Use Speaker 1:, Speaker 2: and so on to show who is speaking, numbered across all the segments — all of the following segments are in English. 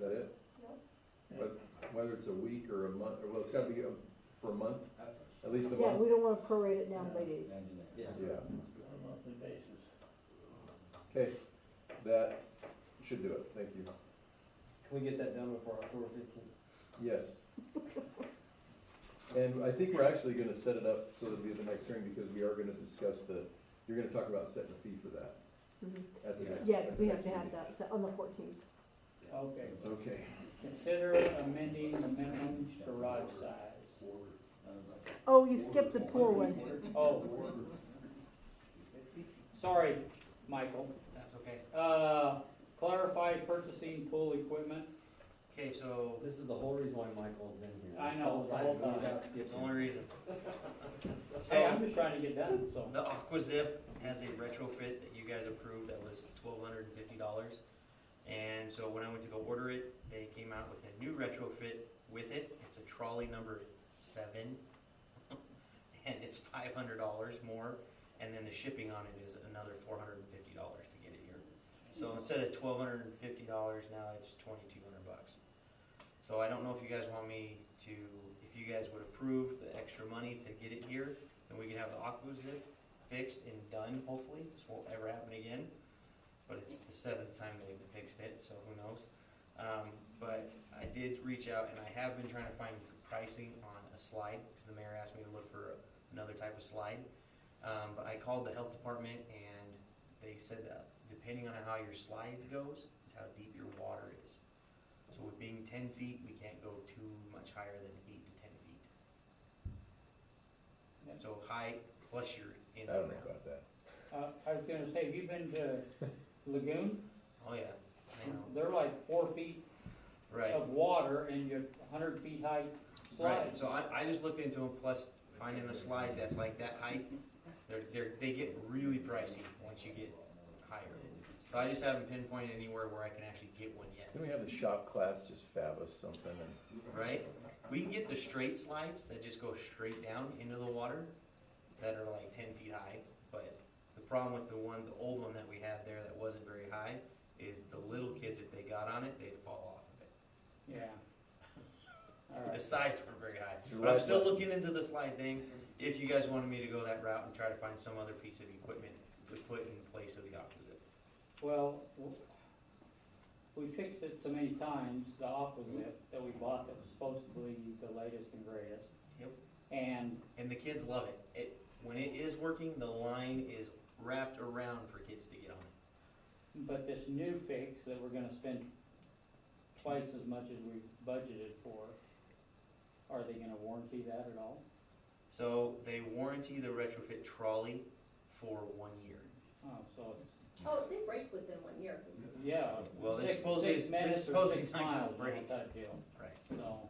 Speaker 1: that it? But whether it's a week or a month, or well, it's gotta be a- for a month,
Speaker 2: That's,
Speaker 1: at least a
Speaker 3: Yeah,
Speaker 1: month.
Speaker 3: we don't wanna prorate it down by days.
Speaker 2: yeah.
Speaker 1: Yeah,
Speaker 4: on a monthly basis.
Speaker 1: okay, that should do it, thank you.
Speaker 2: Can we get that done before October fifteenth?
Speaker 1: Yes. And I think we're actually gonna set it up so it'll be at the next hearing, because we are gonna discuss the, you're gonna talk about setting a fee for that
Speaker 3: Mhm.
Speaker 1: at the next.
Speaker 3: Yeah, because we
Speaker 1: at
Speaker 3: have
Speaker 1: the
Speaker 3: to have
Speaker 1: next
Speaker 3: that set on the fourteenth.
Speaker 5: Okay,
Speaker 1: meeting. Okay,
Speaker 5: consider amending the minimum garage size.
Speaker 3: Oh, you skipped the pool one.
Speaker 5: Oh, sorry, Michael.
Speaker 6: That's okay.
Speaker 5: Uh, clarify purchasing pool equipment.
Speaker 6: Okay, so
Speaker 2: This is the whole reason why Michael's been here.
Speaker 5: I know, the whole time.
Speaker 6: it's the only reason.
Speaker 5: Hey,
Speaker 6: So
Speaker 5: I'm just trying to get done, so.
Speaker 6: the AquaZip has a retrofit that you guys approved that was twelve hundred and fifty dollars. And so when I went to go order it, they came out with a new retrofit with it. It's a trolley number seven. And it's five hundred dollars more, and then the shipping on it is another four hundred and fifty dollars to get it here. So instead of twelve hundred and fifty dollars, now it's twenty-two hundred bucks. So I don't know if you guys want me to, if you guys would approve the extra money to get it here, then we can have the aqua zip fixed and done, hopefully, this won't ever happen again. But it's the seventh time they've fixed it, so who knows? Um, but I did reach out and I have been trying to find pricing on a slide, because the mayor asked me to look for another type of slide. Um, but I called the health department and they said that depending on how your slide goes, is how deep your water is. So with being ten feet, we can't go too much higher than eight to ten feet.
Speaker 5: Yeah.
Speaker 6: So high plus you're in
Speaker 1: I
Speaker 6: the
Speaker 1: don't know
Speaker 6: ground.
Speaker 1: about that.
Speaker 5: Uh, I was gonna say, have you been to Lagoon?
Speaker 6: Oh, yeah, I know,
Speaker 5: They're like four feet
Speaker 6: right.
Speaker 5: of water and you're hundred feet high
Speaker 6: Right,
Speaker 5: slides.
Speaker 6: so I, I just looked into them, plus finding a slide that's like that height, they're, they're, they get really pricey once you get higher. So I just haven't pinpointed anywhere where I can actually get one yet,
Speaker 1: Can we have the shop class just fab us something and?
Speaker 6: right? We can get the straight slides that just go straight down into the water, that are like ten feet high, but the problem with the one, the old one that we had there that wasn't very high, is the little kids, if they got on it, they'd fall off of it.
Speaker 5: Yeah. All right.
Speaker 6: The sides weren't very high.
Speaker 1: Your
Speaker 6: But I'm
Speaker 1: life
Speaker 6: still
Speaker 1: lessons.
Speaker 6: looking into the slide thing, if you guys wanted me to go that route and try to find some other piece of equipment to put in place of the opposite.
Speaker 5: Well, w- we fixed it so many times, the opposite that we bought that was supposed to be the latest and greatest.
Speaker 6: Yep.
Speaker 5: And
Speaker 6: And the kids love it. It, when it is working, the line is wrapped around for kids to get on it.
Speaker 5: But this new fix that we're gonna spend twice as much as we budgeted for, are they gonna warranty that at all?
Speaker 6: So they warranty the retrofit trolley for one year.
Speaker 5: Oh, so it's,
Speaker 7: Oh, they break within one year.
Speaker 5: yeah,
Speaker 6: Well, they're
Speaker 5: six,
Speaker 6: supposedly-
Speaker 5: six
Speaker 6: they're
Speaker 5: minutes or
Speaker 6: supposedly
Speaker 5: six
Speaker 6: not gonna
Speaker 5: miles,
Speaker 6: break.
Speaker 5: on that deal,
Speaker 6: Right.
Speaker 5: so.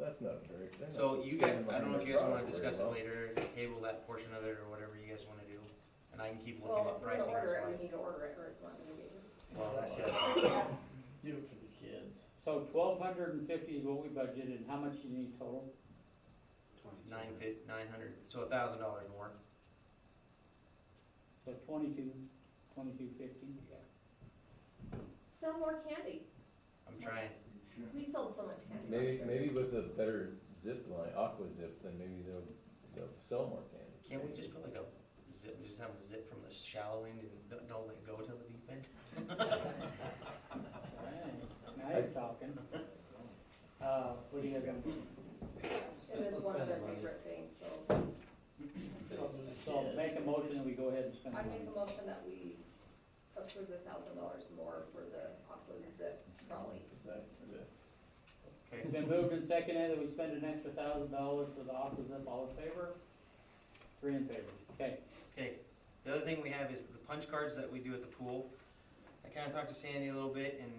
Speaker 1: That's not very. they're not
Speaker 6: So you guys,
Speaker 1: standing
Speaker 6: I don't know
Speaker 1: behind
Speaker 6: if you
Speaker 1: their
Speaker 6: guys wanna
Speaker 1: product
Speaker 6: discuss
Speaker 1: very
Speaker 6: it
Speaker 1: well.
Speaker 6: later, table that portion of it or whatever you guys wanna do. And I can keep looking
Speaker 7: Well,
Speaker 6: at
Speaker 7: if we're gonna
Speaker 6: pricing. or
Speaker 7: order it,
Speaker 6: something.
Speaker 7: we need to order it, or it's not gonna be.
Speaker 6: Well, that's it.
Speaker 4: Do it for the kids.
Speaker 5: So twelve hundred and fifty is what we budgeted, and how much you need total?
Speaker 6: Nine fif, nine hundred, so a thousand dollars more.
Speaker 5: So twenty-two, twenty-two fifty?
Speaker 7: Sell more candy.
Speaker 6: I'm trying.
Speaker 7: We sold so much candy.
Speaker 1: Maybe, maybe with a better zip line, aqua zip, then maybe they'll, they'll sell more candy.
Speaker 6: Can't we just put like a zip, just have a zip from the shallow end and don't- don't let go till the deep end?
Speaker 5: Now you're talking. Uh, what do you have?
Speaker 7: It was one of their favorite things, so
Speaker 5: So, so make a motion that we go ahead and spend
Speaker 7: I
Speaker 5: the money.
Speaker 7: make a motion that we approve a thousand dollars more for the Aqua Zip trolley.
Speaker 6: Okay,
Speaker 5: It's been moved and seconded that we spend an extra thousand dollars for the opposite, all in favor? Three in favor, okay.
Speaker 6: okay. The other thing we have is the punch cards that we do at the pool. I kinda talked to Sandy a little bit and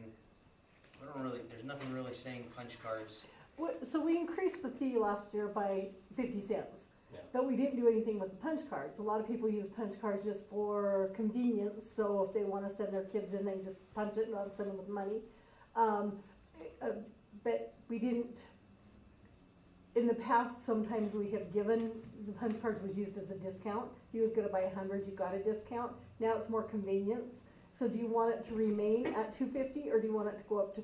Speaker 6: I don't really, there's nothing really saying punch cards.
Speaker 3: What- So we increased the fee last year by fifty cents.
Speaker 6: Yeah.
Speaker 3: But we didn't do anything with the punch cards. A lot of people use punch cards just for convenience, so if they wanna send their kids in, they just punch it and not send them with money. Um, uh, but we didn't, in the past, sometimes we have given, the punch cards was used as a discount. You was gonna buy a hundred, you got a discount. Now it's more convenience. So do you want it to remain at two fifty, or do you want it to go up to